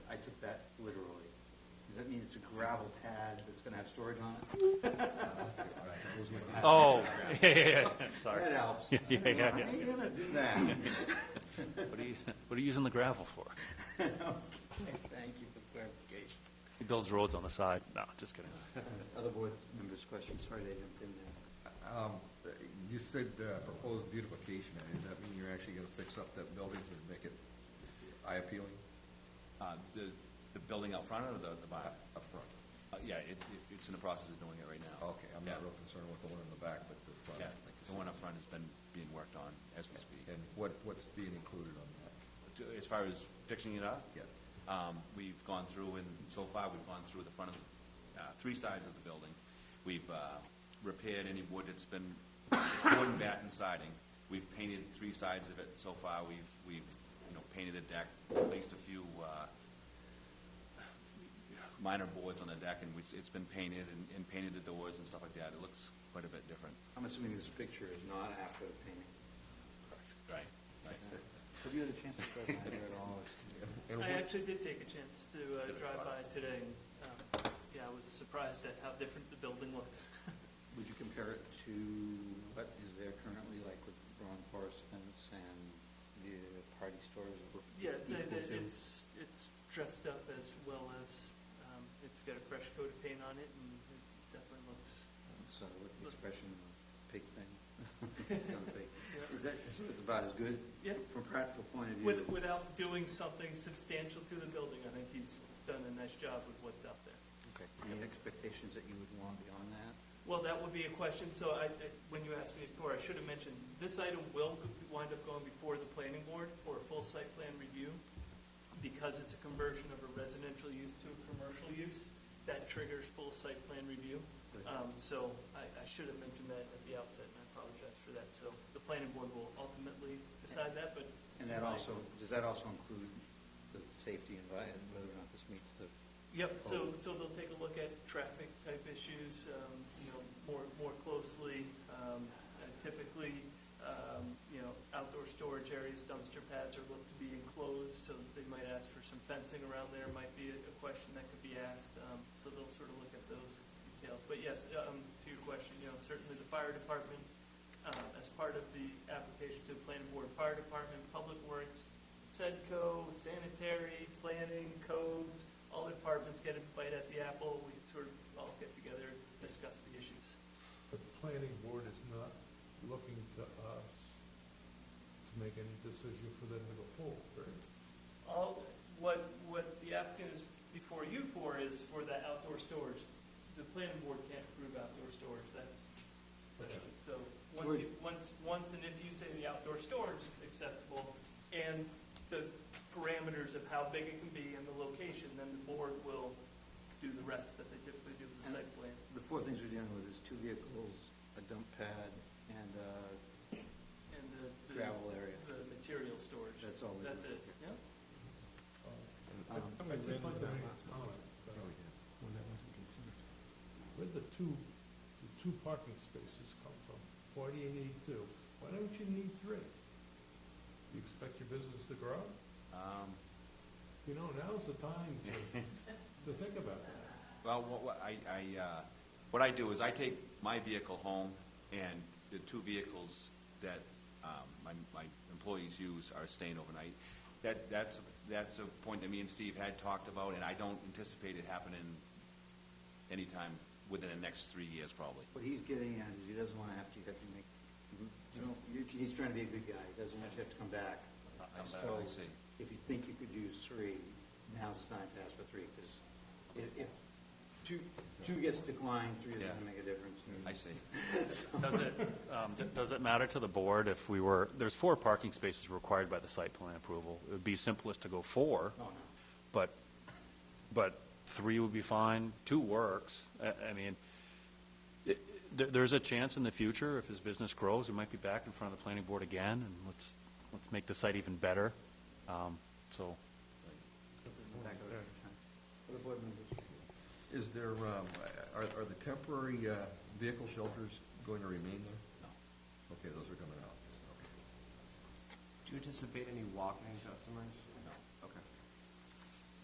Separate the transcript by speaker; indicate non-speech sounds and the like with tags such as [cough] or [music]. Speaker 1: it's a gravel pad that's gonna have storage on it.
Speaker 2: Oh, [laughs] yeah, yeah, yeah, sorry.
Speaker 1: That helps.
Speaker 2: [laughs] Yeah, yeah, yeah,
Speaker 1: Why
Speaker 2: yeah.
Speaker 1: are you gonna do that? [laughs]
Speaker 2: What are you, what are you using the gravel for?
Speaker 1: Okay, Thank you for clarification.
Speaker 2: He builds roads on the side. No, just kidding.
Speaker 1: Other board members' questions, sorry they jumped in there.
Speaker 3: Um, You said uh, proposed beautification, area. does that mean you're actually gonna fix up that building to make it eye appealing
Speaker 4: Uh, The, the building out front or the, the barn?
Speaker 3: up front?
Speaker 4: Uh, Yeah, it, it- it's in the process of doing it right now.
Speaker 3: Okay, I'm not
Speaker 4: Yeah.
Speaker 3: real concerned with the one in the back, but the front.
Speaker 4: Yeah,
Speaker 3: I think is-
Speaker 4: the one up front has been being worked on as we speak.
Speaker 3: And what, what's being included on that?
Speaker 4: To- As far as fixing it up?
Speaker 3: Yes.
Speaker 4: Um, We've gone through, and so far, we've gone through the front of, the- uh, three sides of the building. We've uh, repaired any wood that's been, it's wooden batten siding. We've painted three sides of it so far. We've, we've, you know, painted the deck, placed a few uh, minor boards on the deck, and it's- it's been painted, and- and painted the doors and stuff like that. It looks quite a bit different.
Speaker 1: I'm assuming this picture is not after the painting.
Speaker 4: Right. Right.
Speaker 1: Have you had a chance to drive by there at all?
Speaker 3: And
Speaker 5: I
Speaker 3: what-
Speaker 5: actually did take a chance to uh, drive by today, and, um, yeah, I was surprised at how different the building looks.
Speaker 1: Would you compare it to what is there currently, like with Brown Forest fence and the party stores? that we're
Speaker 5: Yeah, it's,
Speaker 1: equal to?
Speaker 5: it's, it's dressed up as well as, um, it's got a fresh coat of paint on it, and it definitely looks,
Speaker 1: So with the expression, the pig
Speaker 5: [laughs]
Speaker 1: thing. It's gonna be- Is that, so it's about as good?
Speaker 5: Yeah.
Speaker 1: From a practical point of
Speaker 5: with-
Speaker 1: view,
Speaker 5: without doing something substantial to the building, I think he's done a nice job with what's out there.
Speaker 1: okay, any expectations that you would want beyond that?
Speaker 5: Well, that would be a question, so I, I- when you asked me before, I should have mentioned, this item will wind up going before the planning board for a full site plan review, because it's a conversion of a residential use to a commercial use, that triggers full site plan review. Um, So I, I should have mentioned that at the outset, and I apologize for that. So the planning board will ultimately decide that, but
Speaker 1: And that also, does that also include the safety environment, whether or not this meets the,
Speaker 5: Yep, so, so they'll take a look at traffic type issues, um, you know, more, more closely. Um, and Typically, um, you know, outdoor storage areas, dumpster pads are looked to be enclosed, so they might ask for some fencing around there, might be a a question that could be asked. Um, So they'll sort of look at those details. But yes, um, to your question, you know, certainly the fire department, um, as part of the application to the planning board, fire department, public works, SEDCO, sanitary, planning, codes, all the departments get a bite at the apple, we sort of all get together, discuss the issues.
Speaker 6: But the planning board is not looking to us to make any decision for them to go forward, right?
Speaker 5: All, what, what the applicant is before you for is for that outdoor storage. The planning board can't approve outdoor storage, that's, so, once you, once, once and if you say the outdoor storage is acceptable, and the parameters of how big it can be and the location, then the board will do the rest that they typically do with the site plan.
Speaker 1: the four things we're dealing with is two vehicles, a dump pad, and a
Speaker 5: And the, the,
Speaker 1: gravel area.
Speaker 5: the material storage.
Speaker 1: That's all we're
Speaker 5: That's
Speaker 1: doing.
Speaker 5: it, yeah.
Speaker 6: I
Speaker 1: Um,
Speaker 6: I would just like to make a comment. uh, Where'd the two, the two parking spaces come from? Forty and eighty-two. Why don't you need three? You expect your business to grow?
Speaker 4: Um,
Speaker 6: You know, now's the time to, to think about that.
Speaker 4: Well, what, what I, I, uh, what I do is I take my vehicle home, and the two vehicles that, um, my, my employees use are staying overnight. That, that's, that's a point that me and Steve had talked about, and I don't anticipate it happening anytime within the next three years, probably.
Speaker 1: What he's getting at is he doesn't want to have to, have to make,
Speaker 4: Mm-hmm.
Speaker 1: you know, you're- he's trying to be a good guy, he doesn't want you to have to come back.
Speaker 4: Come back,
Speaker 1: So
Speaker 4: I see.
Speaker 1: If you think you could use three, now's the time to ask for three, because if, if two, two gets declined, three isn't
Speaker 4: Yeah.
Speaker 1: going to make a difference. and-
Speaker 4: I see.
Speaker 2: Does it, um, d- does it matter to the board if we were, there's four parking spaces required by the site plan approval. It would be simplest to go four,
Speaker 1: Oh, no.
Speaker 2: but, but three would be fine, two works. I, I mean, it- there, there's a chance in the future, if his business grows, we might be back in front of the planning board again, and let's, let's make the site even better. Um, So,
Speaker 1: Back of the- Other board members?
Speaker 3: Is there, um, are, are the temporary uh, vehicle shelters going to remain there?
Speaker 4: No.
Speaker 3: Okay, those are coming out. Okay.
Speaker 7: Do you anticipate any walk-in customers?